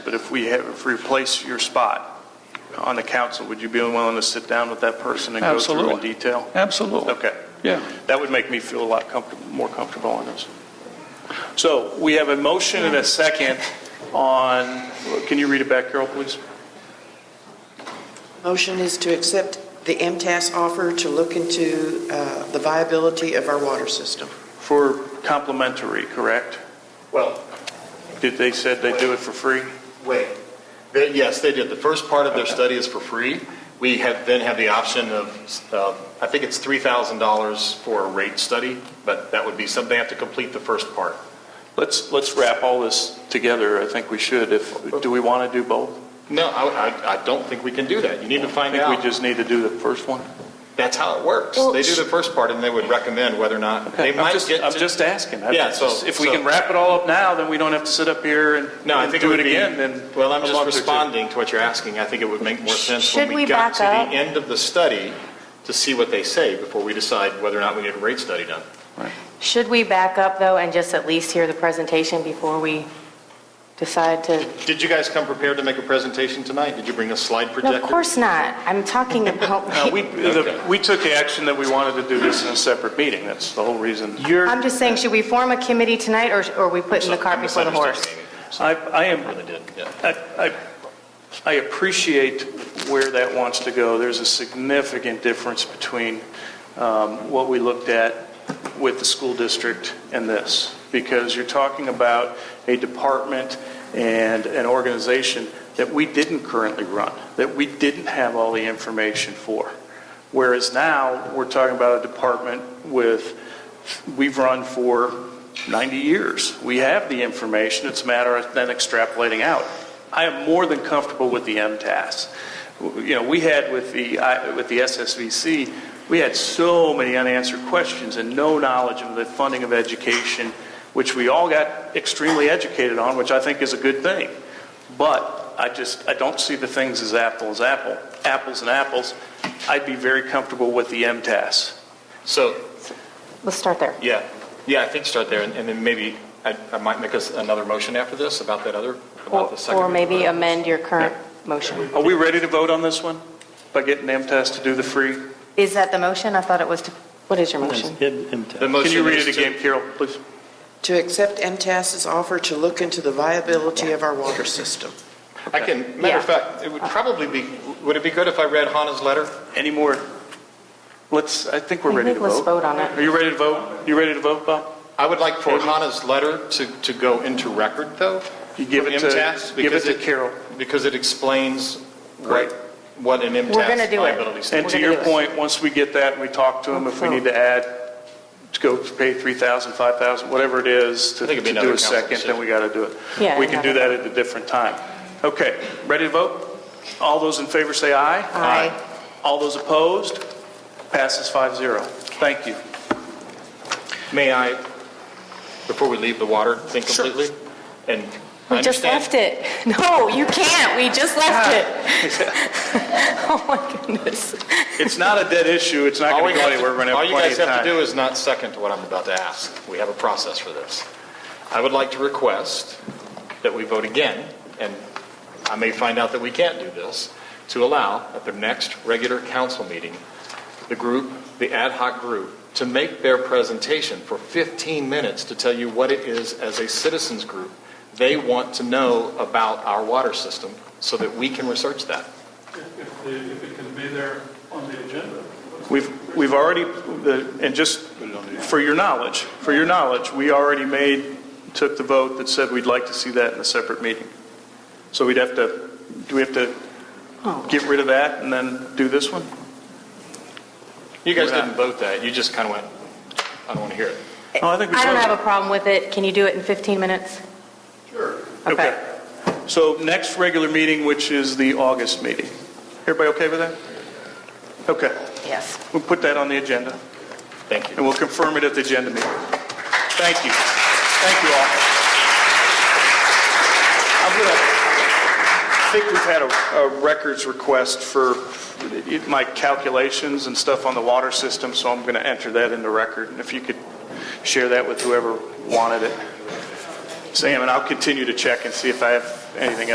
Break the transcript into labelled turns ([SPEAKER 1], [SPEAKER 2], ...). [SPEAKER 1] But if we have, if we replace your spot on the council, would you be willing to sit down with that person and go through in
[SPEAKER 2] Absolutely.
[SPEAKER 1] detail?
[SPEAKER 2] Absolutely.
[SPEAKER 1] Okay.
[SPEAKER 2] Yeah.
[SPEAKER 1] That would make me feel a lot comfortable, more comfortable on this. So we have a motion and a second on, can you read it back, Carol, please?
[SPEAKER 3] Motion is to accept the MTAS offer to look into uh, the viability of our water system.
[SPEAKER 1] For complimentary, correct?
[SPEAKER 4] Well,
[SPEAKER 1] Did they said they do it for free?
[SPEAKER 4] wait, They- yes, they did. The first part of their study is for free. We have, then have the option of, uh, I think it's $3,000 for a rate study, but that would be something, they have to complete the first part.
[SPEAKER 1] Let's, let's wrap all this together. I think we should. If, do we want to do both?
[SPEAKER 4] No, I, I- I don't think we can do that. You need to
[SPEAKER 1] I
[SPEAKER 4] find
[SPEAKER 1] think we
[SPEAKER 4] out.
[SPEAKER 1] just need to do the first one.
[SPEAKER 4] That's how it works.
[SPEAKER 1] Well,
[SPEAKER 4] They do the first part, and they would recommend whether or not, they
[SPEAKER 1] I'm
[SPEAKER 4] might
[SPEAKER 1] just-
[SPEAKER 4] get to...
[SPEAKER 1] I'm just asking. I-
[SPEAKER 4] Yeah, so-
[SPEAKER 1] If we
[SPEAKER 4] so-
[SPEAKER 1] can wrap it all up now, then we don't have to sit up here and
[SPEAKER 4] No, I
[SPEAKER 1] and
[SPEAKER 4] think it
[SPEAKER 1] do it
[SPEAKER 4] would be.
[SPEAKER 1] again, then.
[SPEAKER 4] Well, I'm
[SPEAKER 1] a
[SPEAKER 4] just
[SPEAKER 1] month or two.
[SPEAKER 4] responding to what you're asking. I think it would make more sense
[SPEAKER 5] Should
[SPEAKER 4] when
[SPEAKER 5] we
[SPEAKER 4] we got
[SPEAKER 5] back
[SPEAKER 4] to the
[SPEAKER 5] up?
[SPEAKER 4] end of the study to see what they say before we decide whether or not we need a rate study done.
[SPEAKER 5] Should we back up, though, and just at least hear the presentation before we decide to?
[SPEAKER 4] Did you guys come prepared to make a presentation tonight? Did you bring a slide
[SPEAKER 5] No,
[SPEAKER 4] projector?
[SPEAKER 5] of course not. I'm talking
[SPEAKER 1] No,
[SPEAKER 5] about,
[SPEAKER 1] we, the- we took action that we wanted to do this in a separate meeting. That's the whole reason. You're.
[SPEAKER 5] I'm just saying, should we form a committee tonight, or or are we putting the
[SPEAKER 4] So-
[SPEAKER 5] cart
[SPEAKER 4] I
[SPEAKER 5] before the horse?
[SPEAKER 4] misunderstood,
[SPEAKER 1] I, I am,
[SPEAKER 4] Amy. Really did, yeah.
[SPEAKER 1] I, I- I appreciate where that wants to go. There's a significant difference between um, what we looked at with the school district and this, because you're talking about a department and an organization that we didn't currently run, that we didn't have all the information for. Whereas now, we're talking about a department with, we've run for 90 years. We have the information, it's a matter of then extrapolating out. I am more than comfortable with the MTAS. W- You know, we had with the, I- with the SSVC, we had so many unanswered questions and no knowledge of the funding of education, which we all got extremely educated on, which I think is a good thing. But I just, I don't see the things as apple as apple, apples and apples. I'd be very comfortable with the MTAS.
[SPEAKER 4] So,
[SPEAKER 5] Let's start there.
[SPEAKER 4] yeah, yeah, I think start there, and and then maybe I I might make us another motion after this about that other, about
[SPEAKER 5] Or
[SPEAKER 4] the second.
[SPEAKER 5] or maybe amend your current motion.
[SPEAKER 1] Are we ready to vote on this one? By getting MTS to do the free?
[SPEAKER 5] Is that the motion? I thought it was to, what is your motion?
[SPEAKER 4] The
[SPEAKER 1] Can you
[SPEAKER 4] motion
[SPEAKER 1] read
[SPEAKER 4] is
[SPEAKER 1] it
[SPEAKER 4] to-
[SPEAKER 1] again, Carol, please?
[SPEAKER 3] To accept MTAS's offer to look into the viability of our water system.
[SPEAKER 4] I can, matter of
[SPEAKER 5] Yeah.
[SPEAKER 4] fact, it would probably be, would it be good if I read Hannah's letter?
[SPEAKER 1] Any more? Let's, I think we're
[SPEAKER 5] I
[SPEAKER 1] ready to
[SPEAKER 5] think let's
[SPEAKER 1] vote.
[SPEAKER 5] vote on it.
[SPEAKER 1] Are you ready to vote? You ready to vote, Bob?
[SPEAKER 4] I would like for
[SPEAKER 1] Okay.
[SPEAKER 4] Hannah's letter to, to go into record, though.
[SPEAKER 1] You give it
[SPEAKER 4] for MTS,
[SPEAKER 1] to, give it
[SPEAKER 4] because
[SPEAKER 1] to Carol.
[SPEAKER 4] Because it explains
[SPEAKER 1] Right.
[SPEAKER 4] what, what an MTS
[SPEAKER 5] gonna do it.
[SPEAKER 4] liability
[SPEAKER 1] And
[SPEAKER 4] standard.
[SPEAKER 1] to
[SPEAKER 5] We're
[SPEAKER 1] your
[SPEAKER 5] gonna do
[SPEAKER 1] point, once we get that and we talk to them, if we
[SPEAKER 5] Okay.
[SPEAKER 1] need to add, to go pay 3,000, 5,000, whatever it is to
[SPEAKER 4] I think it'd be
[SPEAKER 1] to do
[SPEAKER 4] another
[SPEAKER 1] a
[SPEAKER 4] council
[SPEAKER 1] second, then
[SPEAKER 4] decision.
[SPEAKER 1] we got to do it.
[SPEAKER 5] Yeah,
[SPEAKER 1] We can do
[SPEAKER 5] another-
[SPEAKER 1] that at a different time. Okay, ready to vote? All those in favor say aye.
[SPEAKER 5] Aye.
[SPEAKER 1] All those opposed? Passes 5-0. Thank you.
[SPEAKER 4] May I, before we leave the water thing completely? And I
[SPEAKER 5] We just
[SPEAKER 4] understand-
[SPEAKER 5] left it. No, you can't. We just left it. Oh, my goodness.
[SPEAKER 1] It's not a dead issue, it's not
[SPEAKER 4] All
[SPEAKER 1] going
[SPEAKER 4] we
[SPEAKER 1] to go
[SPEAKER 4] have to-
[SPEAKER 1] anywhere, we're going to have
[SPEAKER 4] All you
[SPEAKER 1] plenty
[SPEAKER 4] guys
[SPEAKER 1] of
[SPEAKER 4] have to
[SPEAKER 1] time.
[SPEAKER 4] do is not second to what I'm about to ask. We have a process for this. I would like to request that we vote again, and I may find out that we can't do this, to allow at the next regular council meeting, the group, the ad hoc group, to make their presentation for 15 minutes to tell you what it is as a citizens group they want to know about our water system so that we can research that.
[SPEAKER 6] If the- if it can be there on the agenda.
[SPEAKER 1] We've, we've already, the- and just for your knowledge, for your knowledge, we already made, took the vote that said we'd like to see that in a separate meeting. So we'd have to, do we have to
[SPEAKER 5] Oh.
[SPEAKER 1] get rid of that and then do this one?
[SPEAKER 4] You guys
[SPEAKER 1] We're not-
[SPEAKER 4] didn't vote that, you just kind of went, I don't want to hear it.
[SPEAKER 1] Oh, I think we
[SPEAKER 5] I don't
[SPEAKER 1] voted.
[SPEAKER 5] have a problem with it. Can you do it in 15 minutes? Sure. Okay.
[SPEAKER 1] So next regular meeting, which is the August meeting. Everybody okay with that? Okay,
[SPEAKER 5] Yes.
[SPEAKER 1] we'll put that on the agenda.
[SPEAKER 4] Thank you.
[SPEAKER 1] and we'll confirm it at the agenda meeting. Thank you. Thank you all. I'm going to, I think we've had a a records request for my calculations and stuff on the water system, so I'm going to enter that into record, and if you could share that with whoever wanted it. Sam, and I'll continue to check and see if I have anything